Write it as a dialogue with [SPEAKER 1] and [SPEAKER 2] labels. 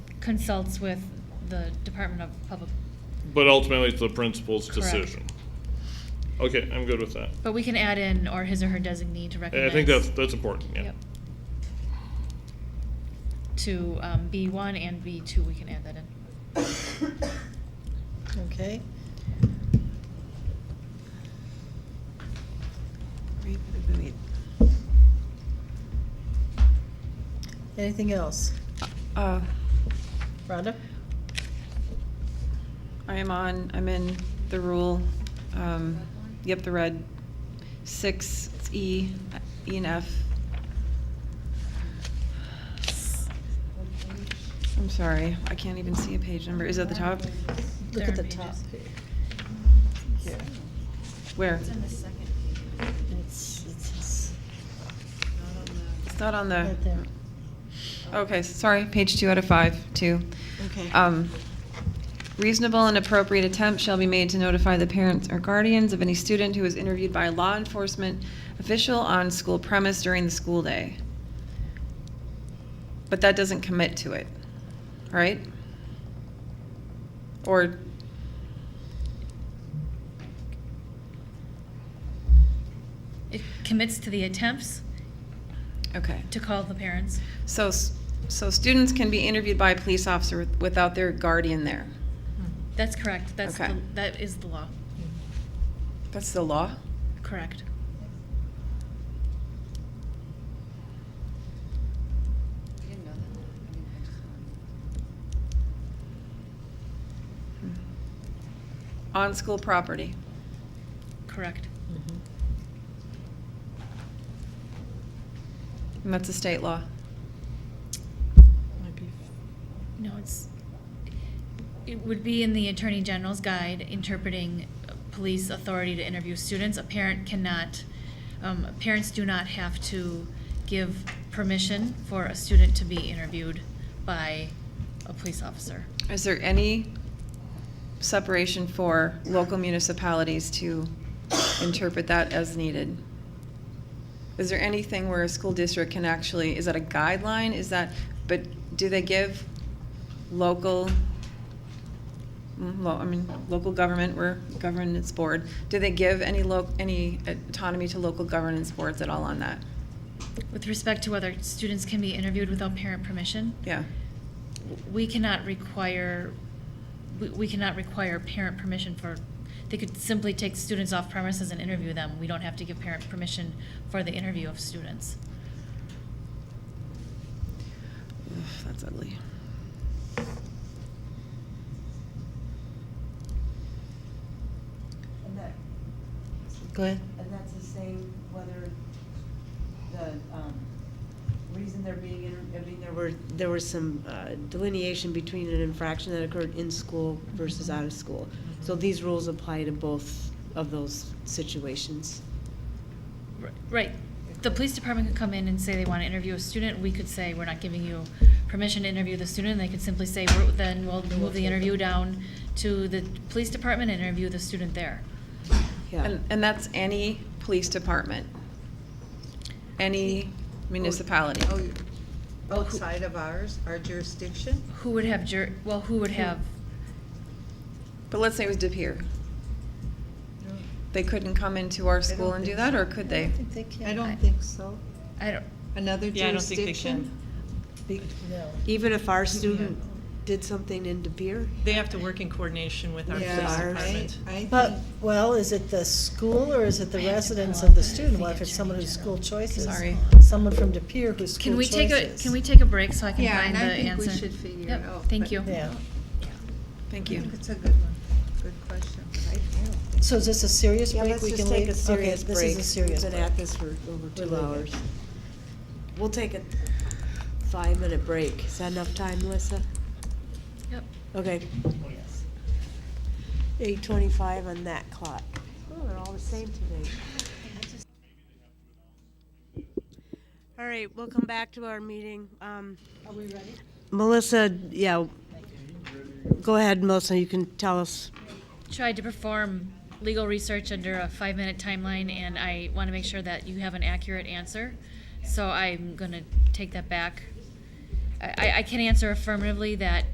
[SPEAKER 1] consults with the Department of Public,
[SPEAKER 2] But ultimately, it's the principal's
[SPEAKER 1] Correct.
[SPEAKER 2] decision. Okay, I'm good with that.
[SPEAKER 1] but we can add in or his or her designee to
[SPEAKER 2] I
[SPEAKER 1] recognize.
[SPEAKER 2] I think that's, that's important, yeah.
[SPEAKER 1] Yep. To um, B1 and B2, we can add that in.
[SPEAKER 3] Okay. Wait, wait, wait, wait. Anything else?
[SPEAKER 4] Uh,
[SPEAKER 3] Rhonda?
[SPEAKER 4] I am on, I'm in the rule, um, yep, the red, six, it's E, E and F. I'm sorry, I can't even see a page number, is it at the top?
[SPEAKER 3] Look
[SPEAKER 1] There
[SPEAKER 3] at
[SPEAKER 1] are
[SPEAKER 3] the
[SPEAKER 1] pages.
[SPEAKER 3] top. Here.
[SPEAKER 4] Where?
[SPEAKER 3] It's, it's- it's
[SPEAKER 4] It's not on the,
[SPEAKER 3] right there.
[SPEAKER 4] okay, sorry, page two out of five, two.
[SPEAKER 3] Okay.
[SPEAKER 4] Um, Reasonable and appropriate attempt shall be made to notify the parents or guardians of any student who is interviewed by a law enforcement official on school premise during the school day. But that doesn't commit to it, right? Or,
[SPEAKER 1] It commits to the attempts
[SPEAKER 4] okay.
[SPEAKER 1] to call the parents.
[SPEAKER 4] So, s- so students can be interviewed by a police officer with- without their guardian there.
[SPEAKER 1] That's correct. That's,
[SPEAKER 4] Okay.
[SPEAKER 1] the- that is the law.
[SPEAKER 4] That's the law?
[SPEAKER 1] Correct.
[SPEAKER 4] On school property.
[SPEAKER 1] Correct.
[SPEAKER 3] Mhm.
[SPEAKER 4] And that's a state law.
[SPEAKER 3] Might be
[SPEAKER 1] No, it's, it would be in the Attorney General's guide interpreting uh, police authority to interview students. A parent cannot, um, parents do not have to give permission for a student to be interviewed by a police officer.
[SPEAKER 4] Is there any separation for local municipalities to interpret that as needed? Is there anything where a school district can actually, is that a guideline? Is that, but do they give local, mm, lo- I mean, local government, we're governance board, do they give any loc, any autonomy to local governance boards at all on that?
[SPEAKER 1] With respect to whether students can be interviewed without parent permission,
[SPEAKER 4] Yeah,
[SPEAKER 1] we cannot require, we- we cannot require parent permission for, they could simply take students off premises and interview them. We don't have to give parent permission for the interview of students.
[SPEAKER 4] Ugh, that's ugly.
[SPEAKER 5] And that,
[SPEAKER 3] Go ahead.
[SPEAKER 5] and that's the same whether the, um, reason they're being, inter- I mean, there were, there was some uh, delineation between an infraction that occurred in school versus out of school. So these rules apply to both of those situations.
[SPEAKER 1] Right. The police department could come in and say they want to interview a student. We could say, we're not giving you permission to interview the student. They could simply say, "We're- then we'll move the interview down to the police department and interview the student there.
[SPEAKER 5] Yeah.
[SPEAKER 4] And, and that's any police department, any municipality.
[SPEAKER 6] Oh, you- Outside of ours, our jurisdiction?
[SPEAKER 1] Who would have jur, well, who would have,
[SPEAKER 4] But let's say it was De Pere. They couldn't come into our school
[SPEAKER 6] don't
[SPEAKER 4] and do
[SPEAKER 6] think
[SPEAKER 4] that,
[SPEAKER 6] so.
[SPEAKER 4] or could
[SPEAKER 3] I
[SPEAKER 4] they?
[SPEAKER 3] think they can.
[SPEAKER 6] I
[SPEAKER 1] I-
[SPEAKER 6] don't think so.
[SPEAKER 1] I don't,
[SPEAKER 6] Another
[SPEAKER 7] Yeah, I don't think they
[SPEAKER 6] jurisdiction?
[SPEAKER 3] Be- No.
[SPEAKER 5] Even if our student did something in De Pere?
[SPEAKER 7] They have to work in coordination with our police
[SPEAKER 6] Yeah, I,
[SPEAKER 7] department.
[SPEAKER 6] I
[SPEAKER 3] But,
[SPEAKER 6] think-
[SPEAKER 3] well, is it the school or is it the
[SPEAKER 1] I have to
[SPEAKER 3] residents
[SPEAKER 1] pull up
[SPEAKER 3] of the
[SPEAKER 1] the
[SPEAKER 3] student? Well, if
[SPEAKER 1] Attorney
[SPEAKER 3] it's someone whose
[SPEAKER 1] General.
[SPEAKER 3] school choices,
[SPEAKER 4] Sorry.
[SPEAKER 3] someone from De Pere whose school
[SPEAKER 1] can we
[SPEAKER 3] choices.
[SPEAKER 1] take a, can we take a break so I can
[SPEAKER 6] Yeah,
[SPEAKER 1] find the
[SPEAKER 6] and I
[SPEAKER 1] answer?
[SPEAKER 6] think we should figure it
[SPEAKER 1] Yep,
[SPEAKER 6] out,
[SPEAKER 1] Thank
[SPEAKER 6] but-
[SPEAKER 1] you.
[SPEAKER 3] Yeah.
[SPEAKER 4] Thank
[SPEAKER 6] I
[SPEAKER 4] you.
[SPEAKER 6] think it's a good one, good question. I- I don't think-
[SPEAKER 3] So is this a serious
[SPEAKER 5] Yeah,
[SPEAKER 3] break?
[SPEAKER 5] let's
[SPEAKER 3] We
[SPEAKER 5] just
[SPEAKER 3] can
[SPEAKER 5] take
[SPEAKER 3] leave.
[SPEAKER 5] a serious break.
[SPEAKER 3] Okay, this is a serious
[SPEAKER 5] We've
[SPEAKER 3] break.
[SPEAKER 5] been at this for over two
[SPEAKER 3] leaving.
[SPEAKER 5] hours. We'll take a five-minute break. Is that enough time, Melissa?
[SPEAKER 1] Yep.
[SPEAKER 5] Okay. Eight twenty-five on that clock. Oh, they're all the same today. All right, we'll come back to our meeting. Um,
[SPEAKER 3] Are we ready?
[SPEAKER 5] Melissa, yeah. Go ahead, Melissa, you can tell us.
[SPEAKER 1] tried to perform legal research under a five minute timeline and I want to make sure that you have an accurate answer. So I'm going to take that back. I, I- I can answer affirmatively that